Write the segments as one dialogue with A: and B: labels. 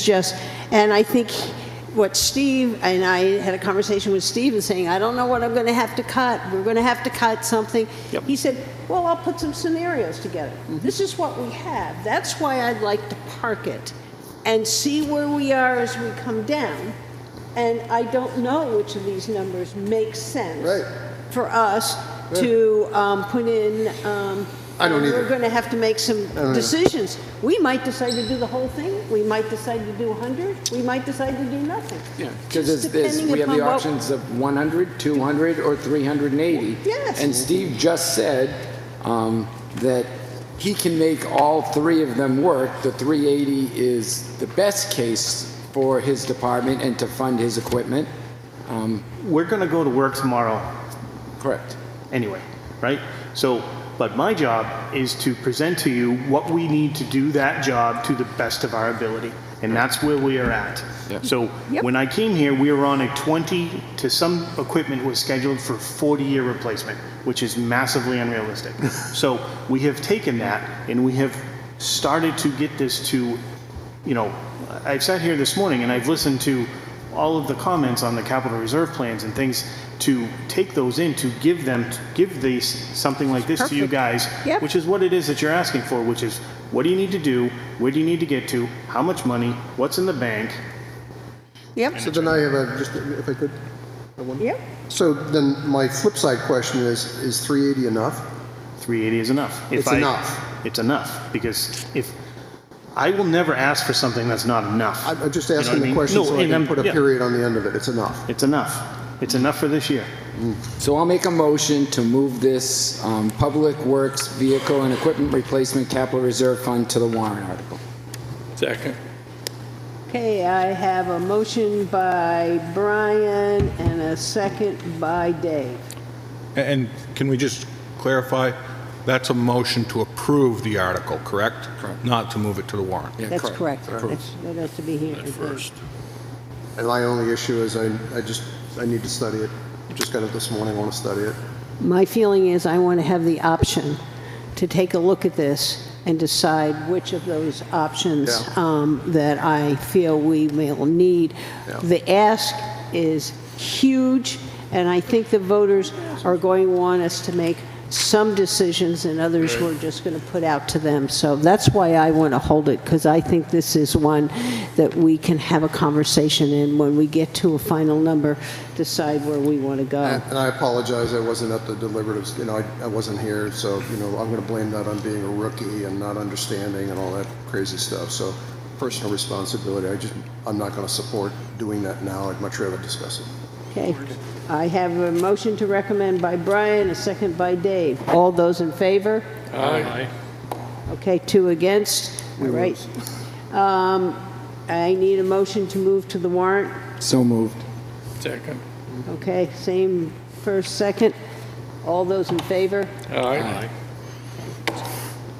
A: just, and I think what Steve, and I had a conversation with Steve and saying, I don't know what I'm going to have to cut. We're going to have to cut something.
B: Yep.
A: He said, well, I'll put some scenarios together. This is what we have. That's why I'd like to park it and see where we are as we come down. And I don't know which of these numbers makes sense
C: Right.
A: for us to um, put in. um,
C: I don't either.
A: We're going to have to make some decisions. We might decide to do the whole thing. We might decide to do 100. We might decide to do nothing.
B: Yeah,
A: Just
B: because there's,
A: depending
B: we have the
A: upon what-
B: options of 100, 200, or 380.
A: Yes.
B: And Steve just said um, that he can make all three of them work. The 380 is the best case for his department and to fund his equipment. Um,
D: We're going to go to work tomorrow
B: Correct.
D: anyway, right? So, but my job is to present to you what we need to do that job to the best of our ability. And that's where we are at.
B: Yeah.
D: So when I came here, we were on a 20 to some equipment was scheduled for 40 year replacement, which is massively unrealistic. so we have taken that and we have started to get this to, you know, I've sat here this morning and I've listened to all of the comments on the capital reserve plans and things to take those in, to give them, to give these, something like this to you guys,
A: Yep.
D: which is what it is that you're asking for, which is what do you need to do? Where do you need to get to? How much money? What's in the bank?
A: Yep,
C: So then I have a, just if I could, I want-
A: yep.
C: So then my flip side question is, is 380 enough?
D: 380 is enough.
C: It's enough.
D: It's enough because if I will never ask for something that's not enough.
C: I'm I'm just
D: You know what I
C: asking the
D: mean?
C: question
D: No,
C: so I
D: and
C: can
D: I'm-
C: put a
D: yeah.
C: period on the end of it. It's enough.
D: It's enough. It's enough for this year.
B: So I'll make a motion to move this um, Public Works Vehicle and Equipment Replacement Capital Reserve Fund to the warrant article.
E: Second.
A: Okay, I have a motion by Brian and a second by Dave.
E: And can we just clarify, that's a motion to approve the article, correct? Correct. Not to move it to the warrant?
A: That's correct. That's- That has to be here. I think.
C: And my only issue is I, I just, I need to study it. Just got it this morning, I want to study it.
A: My feeling is I want to have the option to take a look at this and decide which of those options
C: Yeah.
A: um, that I feel we will need.
C: Yeah.
A: The ask is huge, and I think the voters are going to want us to make some decisions, and others we're just going to put out to them. So that's why I want to hold it, because I think this is one that we can have a conversation in when we get to a final number, decide where we want to go.
C: And and I apologize, I wasn't at the deliberatives, you know, I, I wasn't here, so, you know, I'm gonna blame that on being a rookie and not understanding and all that crazy stuff, so personal responsibility, I just, I'm not gonna support doing that now, I'd much rather discuss it.
A: Okay. I have a motion to recommend by Brian, a second by Dave. All those in favor?
E: Aye.
A: Okay, two against. All right. Um, I need a motion to move to the warrant.
B: So moved.
E: Second.
A: Okay, same first, second. All those in favor?
E: Aye.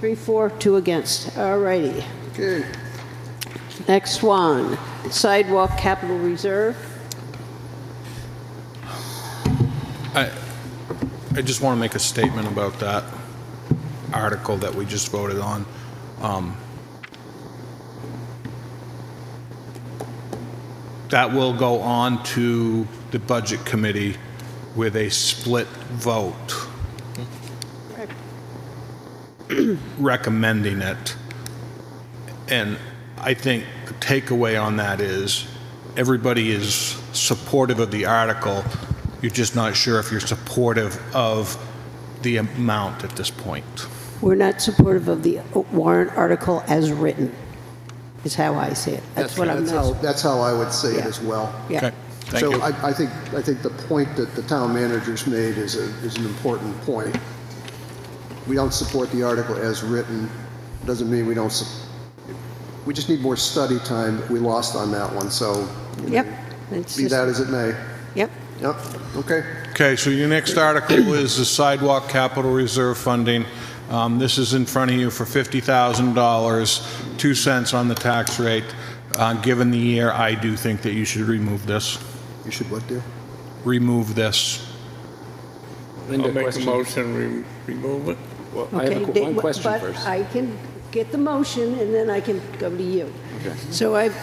A: Three, four, two against. All righty.
C: Okay,
A: Next one, sidewalk capital reserve.
E: I, I just want to make a statement about that article that we just voted on. Um, That will go on to the Budget Committee with a split vote recommending it. And I think the takeaway on that is everybody is supportive of the article. You're just not sure if you're supportive of the amount at this point.
A: We're not supportive of the warrant article as written, is how I see it. That's what I'm...
C: that's how, that's how I would say it as well.
A: Yeah.
E: Okay, Thank
C: So
E: you.
C: I, I think, I think the point that the town manager's made is a, is an important point. We don't support the article as written, doesn't mean we don't, su- we just need more study time, we lost on that one, so. you
A: Yep.
C: know,
A: It's
C: Be
A: just-
C: that as it may.
A: Yep.
C: Yep, okay.
E: Okay, so your next article is the sidewalk capital reserve funding. Um, This is in front of you for $50,000, 2 cents on the tax rate. Uh, Given the year, I do think that you should remove this.
C: You should what do?
E: Remove this.
B: Linda,
F: I'll make a
B: question?
F: motion, we remove it.
B: Well, I have a
A: Okay,
B: qu-
A: they-
B: one question
A: But
B: first.
A: I can get the motion, and then I can go to you.
B: Okay.
A: So I've